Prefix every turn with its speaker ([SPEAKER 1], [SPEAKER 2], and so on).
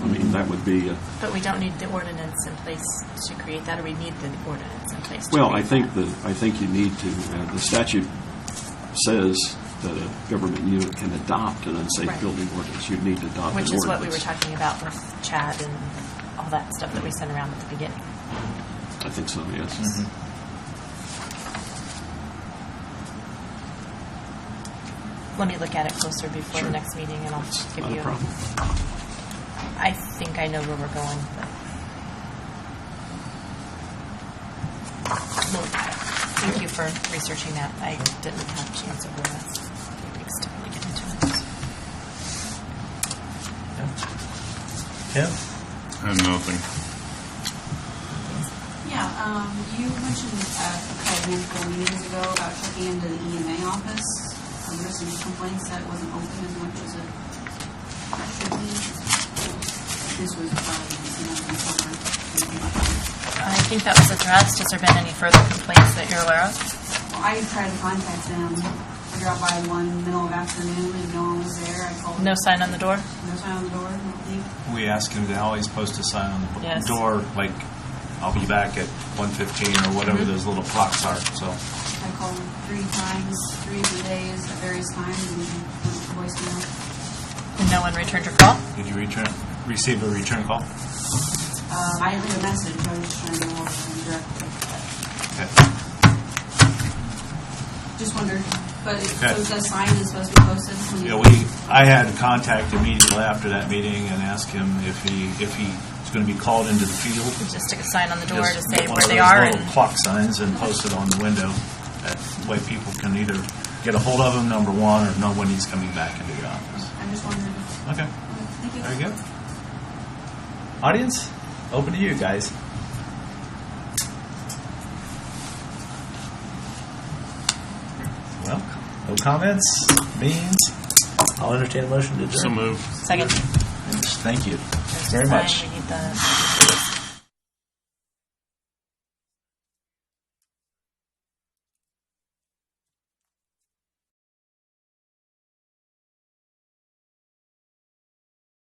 [SPEAKER 1] that would be, uh,
[SPEAKER 2] But we don't need the ordinance in place to create that, or we need the ordinance in place to create that?
[SPEAKER 1] well, I think that, I think you need to, uh, the statute says that a government unit can adopt an unsafe
[SPEAKER 2] Right.
[SPEAKER 1] building ordinance. You'd need to adopt an ordinance.
[SPEAKER 2] Which is what we were talking about with Chad and all that stuff that we sent around at the beginning.
[SPEAKER 1] I think so, yes.
[SPEAKER 2] Mm-hmm. Let me look at it closer before
[SPEAKER 1] Sure.
[SPEAKER 2] the next meeting, and I'll
[SPEAKER 1] It's
[SPEAKER 2] give
[SPEAKER 1] not
[SPEAKER 2] you.
[SPEAKER 1] a problem.
[SPEAKER 2] I think I know where we're going, but. Well, Thank you for researching that. I didn't have a chance over that. Extend to get into it.
[SPEAKER 3] Yeah.
[SPEAKER 4] I have nothing.
[SPEAKER 5] Yeah, um, you mentioned uh, a couple of couple meetings ago about checking into the EMA office. Um, there's some complaints that it wasn't open as much as it should be. This was probably, you know, before, maybe about that.
[SPEAKER 2] I think that was addressed. Has there been any further complaints that you're aware of?
[SPEAKER 5] Well, I tried to contact them. I dropped by one middle of afternoon and no one was there. I called.
[SPEAKER 2] No sign on the door?
[SPEAKER 5] No sign on the door, no leak.
[SPEAKER 3] We ask him to always post a sign on the b-
[SPEAKER 2] Yes.
[SPEAKER 3] door, like, I'll be back at 1:15 or whatever
[SPEAKER 2] Mm-hmm.
[SPEAKER 3] those little clocks are, so.
[SPEAKER 5] I called three times, three of the days at various times and went to voicemail.
[SPEAKER 2] No one returned your call?
[SPEAKER 3] Did you return, receive a return call?
[SPEAKER 5] Uh, I didn't leave a message. I was just trying to walk them directly.
[SPEAKER 3] Okay.
[SPEAKER 2] Mm-hmm.
[SPEAKER 5] Just wondered, but it,
[SPEAKER 3] Okay.
[SPEAKER 5] so the sign is supposed to be posted. when
[SPEAKER 3] Yeah,
[SPEAKER 5] you-
[SPEAKER 3] we, I had contact immediately after that meeting and asked him if he, if he's going to be called into the field.
[SPEAKER 2] Just stick a sign on the door
[SPEAKER 3] Just
[SPEAKER 2] to say
[SPEAKER 3] one
[SPEAKER 2] where
[SPEAKER 3] of
[SPEAKER 2] they
[SPEAKER 3] those
[SPEAKER 2] are
[SPEAKER 3] little
[SPEAKER 2] and
[SPEAKER 3] Clock signs and post it on the window. That way people can either get a hold of him, number one, or know when he's coming back into the office.
[SPEAKER 5] I just wondered.
[SPEAKER 3] Okay,
[SPEAKER 5] Thank you.
[SPEAKER 3] very good.
[SPEAKER 6] Audience, open to you guys. Well, no comments, means I'll entertain a motion to adjourn.
[SPEAKER 4] So move.
[SPEAKER 2] second.
[SPEAKER 6] Thank you
[SPEAKER 2] There's the
[SPEAKER 6] very
[SPEAKER 2] sign.
[SPEAKER 6] much.
[SPEAKER 2] We need the.